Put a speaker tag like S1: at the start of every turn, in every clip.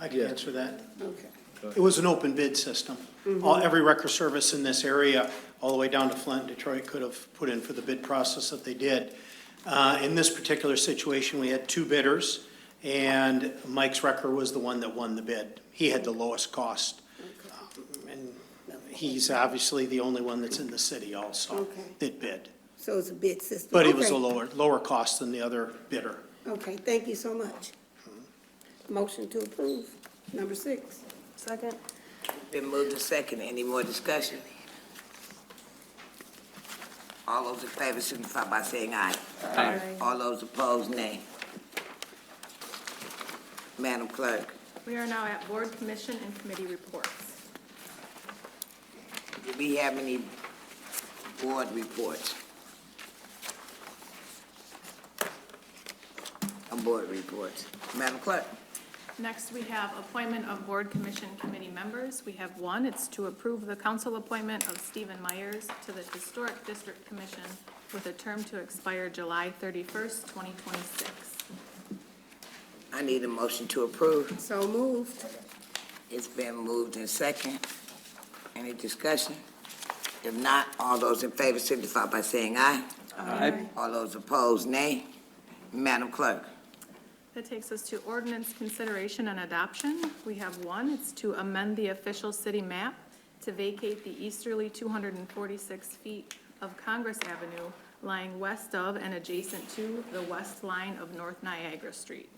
S1: I can
S2: Yeah.
S1: answer that.
S3: Okay.
S1: It was an open bid system.
S3: Mm-hmm.
S1: All, every wrecker service in this area, all the way down to Flint, Detroit, could have put in for the bid process that they did. Uh, in this particular situation, we had two bidders, and Mike's wrecker was the one that won the bid. He had the lowest cost. Um, And he's obviously the only one that's in the city also
S3: Okay.
S1: that bid.
S3: So it's a bid system.
S1: But it was
S3: Okay.
S1: a lower, lower cost than the other bidder.
S3: Okay, thank you so much. Motion to approve, number six.
S4: Second?
S5: Been moved to second. Any more discussion? All those in favor signify by saying aye.
S4: Aye.
S5: All those opposed, nay. Madam Clerk,
S4: We are now at board, commission, and committee reports.
S5: do we have any board reports? No board reports. Madam Clerk,
S4: Next, we have appointment of board, commission, committee members. We have one, it's to approve the council appointment of Stephen Myers to the Historic District Commission with a term to expire July 31st, 2026.
S5: I need a motion to approve.
S3: So moved.
S5: It's been moved and second. Any discussion? If not, all those in favor signify by saying aye.
S2: Aye.
S5: All those opposed, nay. Madam Clerk,
S4: That takes us to ordinance consideration and adoption. We have one, it's to amend the official city map to vacate the easterly 246 feet of Congress Avenue lying west of and adjacent to the west line of North Niagara Street.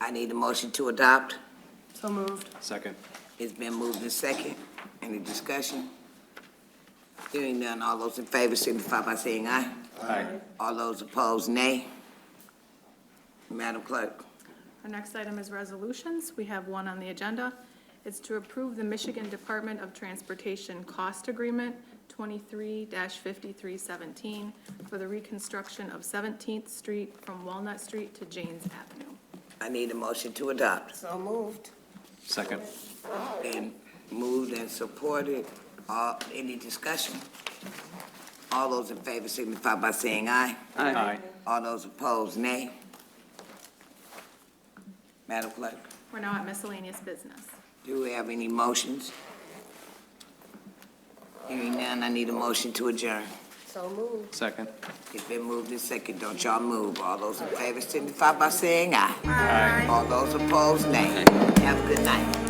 S5: I need a motion to adopt.
S4: So moved.
S2: Second.
S5: It's been moved and second. Any discussion? Hearing none, all those in favor signify by saying aye.
S2: Aye.
S5: All those opposed, nay. Madam Clerk,
S4: Our next item is resolutions. We have one on the agenda. It's to approve the Michigan Department of Transportation Cost Agreement 23-5317 for the reconstruction of 17th Street from Walnut Street to Janes Avenue.
S5: I need a motion to adopt.
S3: So moved.
S2: Second.
S5: Been moved and supported. Uh, any discussion? All those in favor signify by saying aye.
S2: Aye.
S5: All those opposed, nay. Madam Clerk,
S4: We're now at miscellaneous business.
S5: do we have any motions? Hearing none, I need a motion to adjourn.
S3: So moved.
S2: Second.
S5: It's been moved and second, don't y'all move. All those in favor signify by saying aye. Aye. All those opposed, nay. Have a good night.